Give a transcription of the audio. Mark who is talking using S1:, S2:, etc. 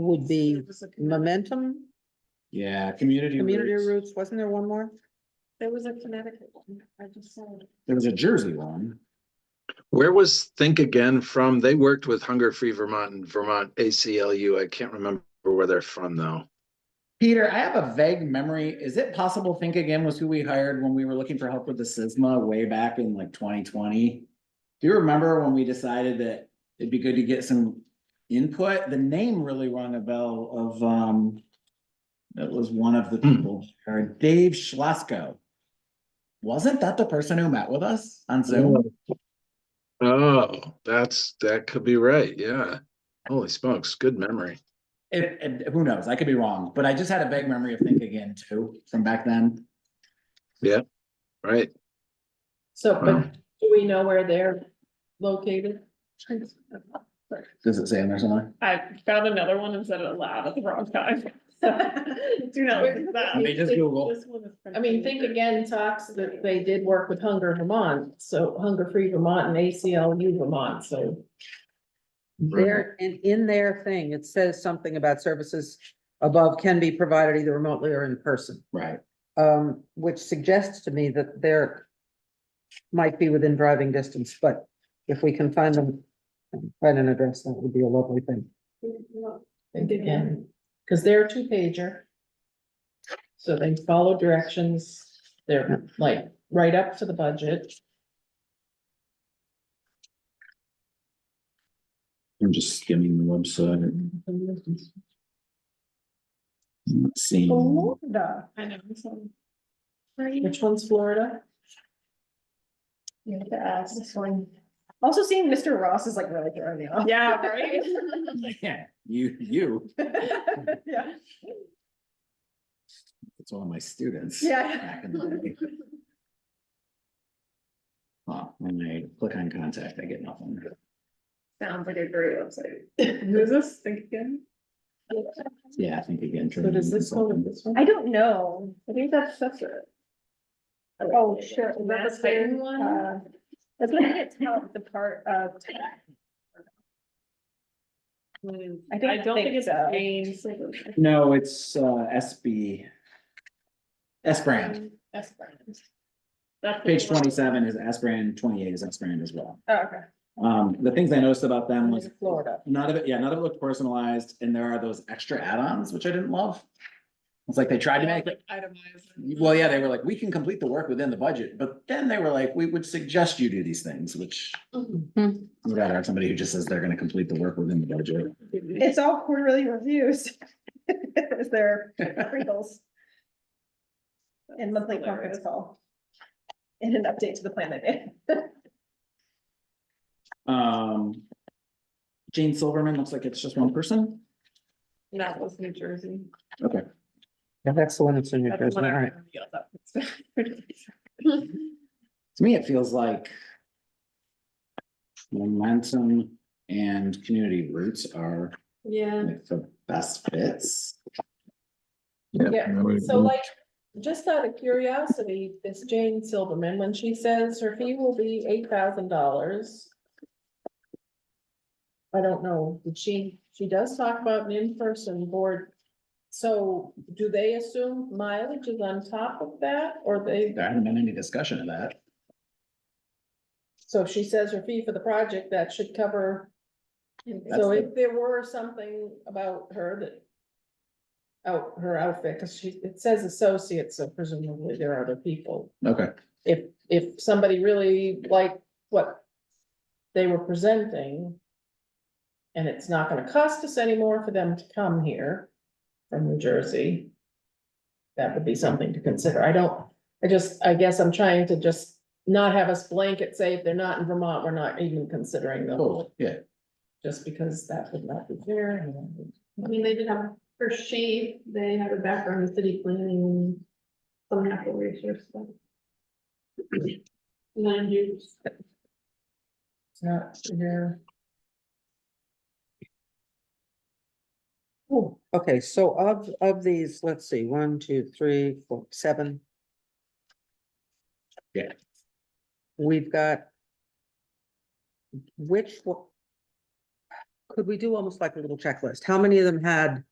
S1: would be momentum,
S2: Yeah, community
S1: community
S2: roots.
S1: roots, wasn't there one more?
S3: There was a Connecticut one, I just saw it.
S2: There was a Jersey one.
S4: Where was Think Again from? They worked with Hunger Free Vermont and Vermont ACLU. I can't remember where they're from though.
S2: Peter, I have a vague memory. Is it possible Think Again was who we hired when we were looking for help with the SISMA way back in like twenty twenty? Do you remember when we decided that it'd be good to get some input? The name really rung a bell of, um, that was one of the
S4: Hmm.
S2: people, or Dave Schlasko. Wasn't that the person who met with us on Zoom?
S4: Oh, that's, that could be right. Yeah. Holy smokes, good memory.
S2: If, and who knows? I could be wrong, but I just had a vague memory of Think Again too, from back then.
S4: Right?
S3: So,
S4: Wow.
S3: but do we know where they're located?
S2: Does it say on there somewhere?
S5: I found another one and said it aloud at the wrong time. Do not listen to that.
S2: I mean, just Google.
S5: This one is from-
S3: I mean, Think Again talks that they did work with Hunger Vermont, so Hunger Free Vermont and ACLU Vermont, so.
S4: Right.
S1: There, and in their thing, it says something about services above can be provided either remotely or in person.
S2: Right.
S1: Um, which suggests to me that they're might be within driving distance, but if we can find them, find an address, that would be a lovely thing.
S3: Think Again, because they're a two pager. So they follow directions, they're like right up to the budget.
S2: I'm just skimming the website, and seeing.
S5: Florida. I know, so. Right.
S3: Which one's Florida?
S5: You have to ask this one.
S6: Also seeing Mr. Ross is like really throwing me off.
S5: Yeah, right?
S2: Yeah, you, you,
S6: Yeah.
S2: it's one of my students.
S6: Yeah.
S2: back in the day. Huh, when I click on contact, I get nothing.
S5: Sounds like a great website. Who's this? Think again.
S2: Yeah, I think again.
S3: So does this one and this one?
S6: I don't know.
S5: I think that's, that's it.
S6: Oh, sure.
S5: Is that the Clayton one?
S6: Uh, That's what I didn't tell the part of. I
S5: Hmm, I
S6: don't
S5: don't think it's
S6: so.
S5: James.
S2: No, it's uh SB. S brand,
S5: S brand. That's. the
S2: page
S5: one.
S2: twenty-seven is S brand, twenty-eight is S brand as well.
S6: Oh, Okay.
S2: Um, the things I noticed about them was.
S3: Florida.
S2: None of it, yeah, none of it looked personalized, and there are those extra add-ons, which I didn't love. It's like they tried to make it
S5: Itemized.
S2: Well, yeah, they were like, we can complete the work within the budget, but then they were like, we would suggest you do these things, which would rather have somebody who just says they're gonna complete the work within the budget.
S6: It's all quarterly reviews. Is there wrinkles? And monthly conference call. And an update to the plan they made.
S2: Um. Jane Silverman looks like it's just one person.
S5: That was New Jersey.
S2: Okay.
S1: Yeah, that's the one that's in your Jersey,
S5: That's
S1: all
S5: what I
S1: right.
S5: remember, yeah, that was-
S2: To me, it feels like. Momentum and community roots are
S3: Yeah.
S2: like the best fits.
S3: Yeah, so
S2: Mhm.
S3: like, just out of curiosity, this Jane Silverman, when she says her fee will be eight thousand dollars. I don't know, did she, she does talk about an in-person board. So do they assume mileage is on top of that or they,
S2: There hasn't been any discussion of that.
S3: so if she says her fee for the project, that should cover.
S2: That's
S3: So
S2: the-
S3: if there were something about her that. Out, her outfit, cause she, it says associate, so presumably there are other people.
S2: Okay,
S3: if, if somebody really liked what they were presenting. And it's not gonna cost us anymore for them to come here from New Jersey. That would be something to consider. I don't, I just, I guess I'm trying to just not have us blanket say if they're not in Vermont, we're not even considering them.
S2: cool, yeah.
S3: Just because that would not be fair. and-
S7: I mean, they did have, for shape, they have a background in city planning, some natural resource stuff. Land use.
S3: It's not fair.
S1: Ooh, Okay, so of, of these, let's see, one, two, three, four, seven.
S2: Yeah.
S1: We've got. Which one? could we do almost like a little checklist? How many of them had